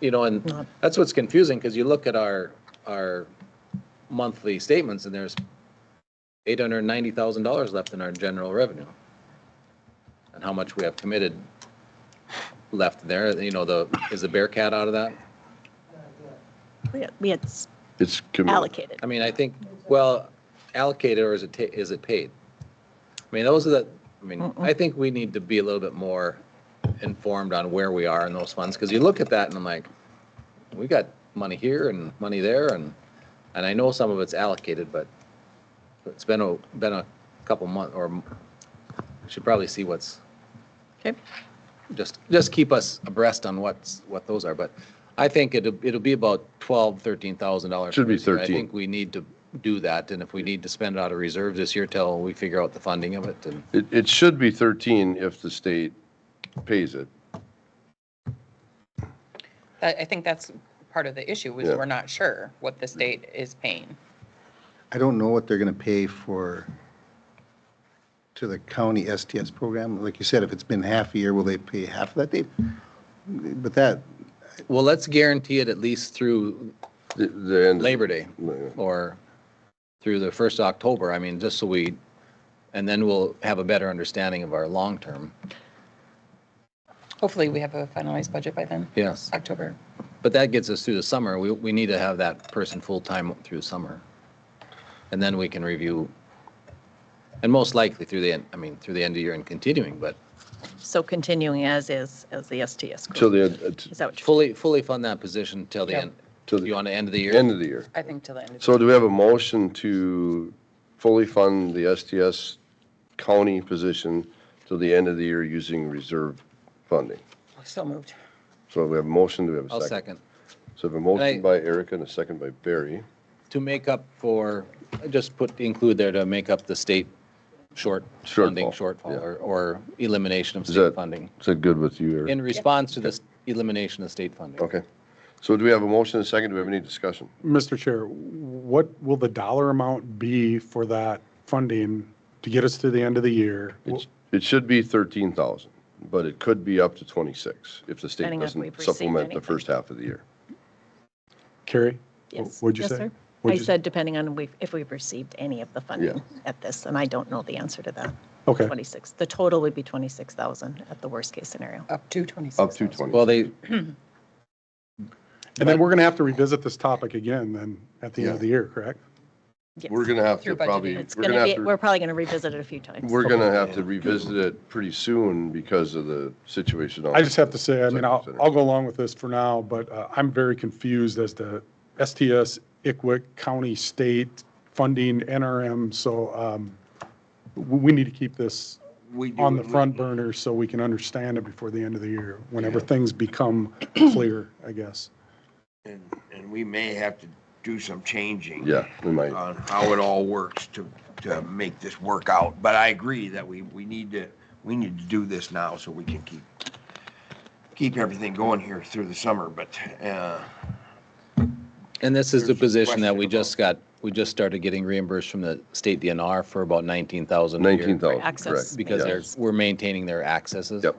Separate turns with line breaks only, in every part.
you know, and that's what's confusing, because you look at our, our monthly statements and there's eight hundred and ninety thousand dollars left in our general revenue. And how much we have committed left there, you know, the, is the Bearcat out of that?
We had- We had s-
It's committed.
allocated.
I mean, I think, well, allocated or is it, ta- is it paid? I mean, those are the, I mean, I think we need to be a little bit more informed on where we are in those funds, because you look at that and I'm like, we got money here and money there and, and I know some of it's allocated, but it's been a, been a couple month or m- should probably see what's,
Okay.
just, just keep us abreast on what's, what those are, but I think it'll, it'll be about twelve, thirteen thousand dollars.
Should be
I
13.
think we need to do that, and if we need to spend it out of reserves this year till we figure out the funding of it, and
It, it should be 13 if the state pays it.
I, I think that's part of the issue, is
Yeah.
we're not sure what the state is paying.
I don't know what they're going to pay for, to the county STS program. Like you said, if it's been half a year, will they pay half of that? They, but that,
well, let's guarantee it at least through
The- The end.
Labor Day or through the first October, I mean, just so we, and then we'll have a better understanding of our long-term,
Hopefully, we have a finalized budget by then,
yes.
October.
But that gets us through the summer. We, we need to have that person full-time through summer. And then we can review, and most likely through the end, I mean, through the end of year and continuing, but
So continuing as is, as the STS
Till
group.
the end, uh,
Is that what you're,
fully, fully fund that position till the
Yep.
end,
Till the-
you want to end of the
t-
year?
end of the year.
I think till the end of
So do we have a motion to fully fund the STS county position till the end of the year using reserve funding?
the, so moved.
So we have a motion, do we have a 2nd
I'll second.
So we have a motion
And
by Erica and a second by Barry.
To make up for, just put, include there to make up the state short funding
Shortfall,
shortfall
yeah.
or, or elimination of
Is
state
that-
funding
Is that good with you, Erica?
in response to this elimination of state funding.
Okay. So do we have a motion and a second? Do we have any discussion?
Mr. Chair, what will the dollar amount be for that funding to get us to the end of the year?
It's- It should be 13,000, but it could be up to 26 if the state
Depending on if we've
doesn't
received
supplement the
anything.
first half of the year.
Carrie?
yes.
What'd you
yes,
say?
sir. I
What'd you-
said depending on we- if we've received any of the funding at this, and I don't know the answer to that.
Okay.
26, the total would be 26,000 at the worst-case scenario.
Up to 26.
Up to 20.
Well, they,
And then we're going to have to revisit this topic again then at the end of the year, correct?
Yes.
We're going to have to
Through budgeting.
probably,
It's
we're
going
going
to
to
be, we're
have
probably going to revisit it a few
to,
times.
we're going to have to revisit it pretty soon because of the situation. out
I just have to
at
say, I mean, I'll,
Executive Center.
I'll go along with this for now, but uh, I'm very confused as to STS, ICWIC, county, state, funding, NRM. So um, we we need to keep this on the front burner so we can understand it before the end of the year, whenever things become clear, I guess.
And, and we may have to do some changing.
Yeah, we might.
On how it all works to, to make this work out. But I agree that we, we need to, we need to do this now so we can keep, keep everything going here through the summer, but, uh,
And this is the
There's a
position that
question
we just got, we just started getting reimbursed from the state DNR for about nineteen thousand.
19,000,
For access
correct.
Because
Yeah.
they're, we're maintaining their accesses.
Yep.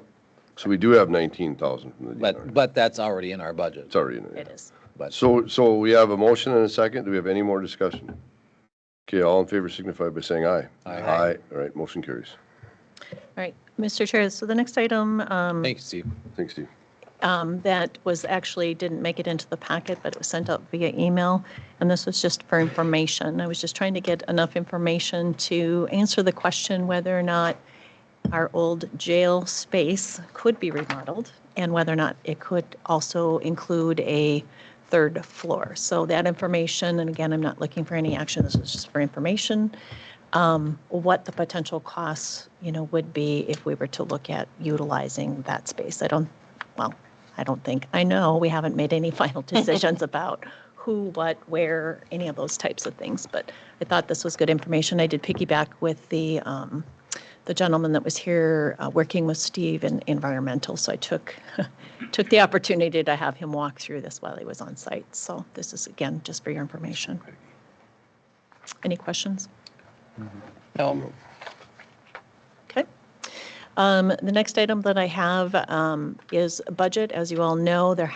So we do have 19,000 from the
But,
DNR.
but that's already in our budget.
It's already in
It
it.
is.
But
So, so we have a motion and a second. Do we have any more discussion? Okay, all in favor signify by saying aye.
Aye.
Aye. All right, motion carries.
All right, Mr. Chair, so the next item um,
thank you, Steve.
Thanks, Steve.
um, that was actually, didn't make it into the packet, but it was sent out via email, and this was just for information. I was just trying to get enough information to answer the question whether or not our old jail space could be remodeled and whether or not it could also include a third floor. So that information, and again, I'm not looking for any action, this is just for information, um, what the potential costs, you know, would be if we were to look at utilizing that space. I don't, well, I don't think, I know, we haven't made any final decisions about who, what, where, any of those types of things, but I thought this was good information. I did piggyback with the, um, the gentleman that was here uh, working with Steve in environmental, so I took, took the opportunity to have him walk through this while he was on site. So this is, again, just for your information. Any questions?
No,
Okay. Um, The next item that I have um, is budget. As you all know, there